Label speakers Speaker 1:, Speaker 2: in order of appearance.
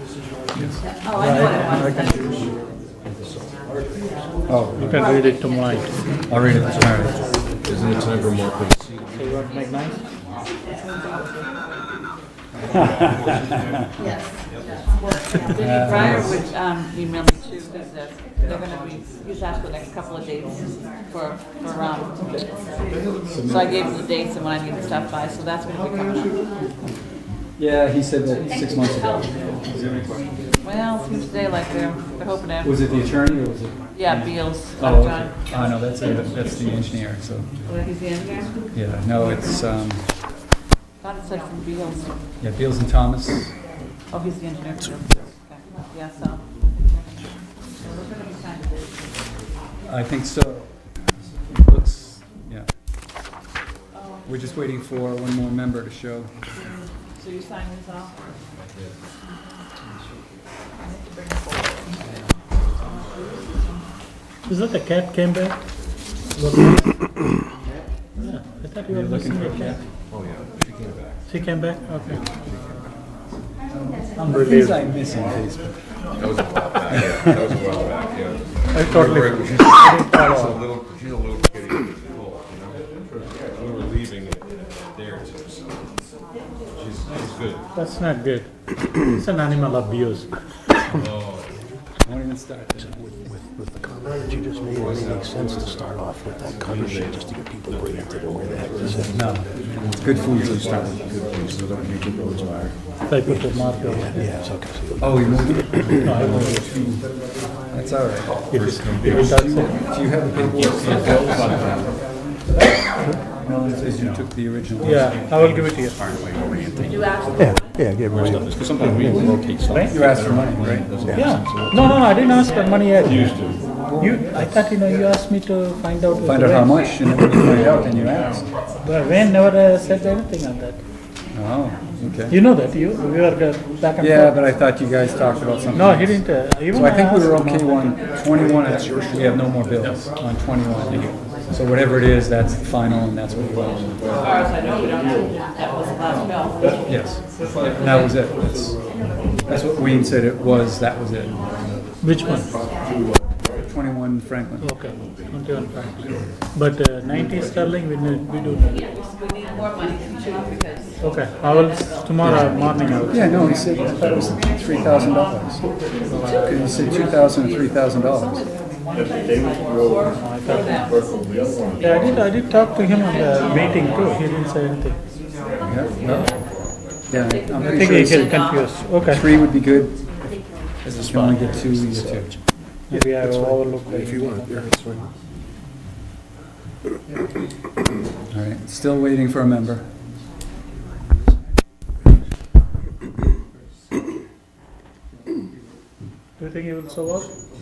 Speaker 1: Oh, I know what it was.
Speaker 2: You can read it tomorrow.
Speaker 3: I'll read it tomorrow.
Speaker 4: Isn't it time for more, please?
Speaker 2: You want to make mine?
Speaker 1: Denny Fryer would um, email me too, because they're gonna be, he's asked for the next couple of dates for, for, um, so I gave him the dates and when I need to stop by, so that's gonna be coming up.
Speaker 3: Yeah, he said that six months ago. Is there any question?
Speaker 1: Well, it seems today like they're, they're hoping to
Speaker 3: Was
Speaker 1: have,
Speaker 3: it the attorney or was it?
Speaker 1: yeah, Beals,
Speaker 3: Oh,
Speaker 1: John,
Speaker 3: okay. Oh, no, that's, a- that's the engineer, so,
Speaker 1: Oh, he's the engineer.
Speaker 3: yeah, no, it's, um,
Speaker 1: Thought it said from Beals,
Speaker 3: yeah, Beals and Thomas.
Speaker 1: oh, he's the engineer. Okay. Yeah, so. So we're gonna be kind of-
Speaker 3: I think so. It Looks, yeah. We're just waiting for one more member to show.
Speaker 1: So you sign this off?
Speaker 2: Is that the cat came back? Yeah, I thought you were missing the cat.
Speaker 4: Oh, yeah, she came back.
Speaker 2: She came back? Okay.
Speaker 3: I'm relieved. Things I miss in Facebook.
Speaker 4: That was a while back, yeah, that was a while back, yeah.
Speaker 2: I totally,
Speaker 4: She's a little, she's a little kitty, it's full, you know? We were leaving it there, so she's, she's good.
Speaker 2: that's not good. It's an animal abuse.
Speaker 3: I won't even start.
Speaker 5: With the comment that you just made, it really makes sense to start off with that cover sheet, just to get people oriented on where the heck this is.
Speaker 3: No, good food to start with.
Speaker 2: I put the marker. on.
Speaker 5: Yeah, it's okay. so-
Speaker 3: Oh, you moved it?
Speaker 2: No, I won't. If
Speaker 3: That's all right.
Speaker 2: it- if it does-
Speaker 3: Do you have the paperwork? No, it says you took the original.
Speaker 2: Yeah, I will give it to you.
Speaker 5: Yeah, yeah, get rid of it.
Speaker 4: Because sometimes we rotate stuff.
Speaker 3: You asked for money, right?
Speaker 2: Yeah. No, no, I didn't ask for money yet. Used to. You, I thought, you know, you asked me to find out.
Speaker 3: Find out how much, and then when you find out, then you ask.
Speaker 2: But Wayne never uh, said anything on that.
Speaker 3: Oh, okay.
Speaker 2: You know that, you, we were uh, back and forth.
Speaker 3: Yeah, but I thought you guys talked about something.
Speaker 2: No, he
Speaker 3: else.
Speaker 2: didn't, uh, even
Speaker 3: So I think we were
Speaker 2: asked him.
Speaker 3: okay on 21, and we have no more bills on 21. So whatever it is, that's the final, and that's what we want.
Speaker 1: As far as I know, we don't have, that was the last bill.
Speaker 3: Yes. And that was it. That's- That's what Wayne said it was, that was it.
Speaker 2: Which one?
Speaker 3: 21 Franklin.
Speaker 2: Okay, twenty-one francs. But uh, ninety sterling, we need, we do need.
Speaker 1: We need more money to choose because
Speaker 2: Okay, I will, s- tomorrow morning I will.
Speaker 3: Yeah, no, he said, I thought it was $3,000. He said 2000 and $3,000.
Speaker 2: Yeah, I did, I did talk to him on the meeting too, he didn't say anything.
Speaker 3: Yeah, no. Yeah, I'm
Speaker 2: I
Speaker 3: pretty
Speaker 2: think
Speaker 3: sure
Speaker 2: he
Speaker 3: he said
Speaker 2: get confused, okay.
Speaker 3: Three would be good. If you only get two, you get two.
Speaker 2: Maybe I will overlook.
Speaker 5: If you want, yeah, it's fine.
Speaker 3: All right, still waiting for a member.
Speaker 2: Do you think he will show up?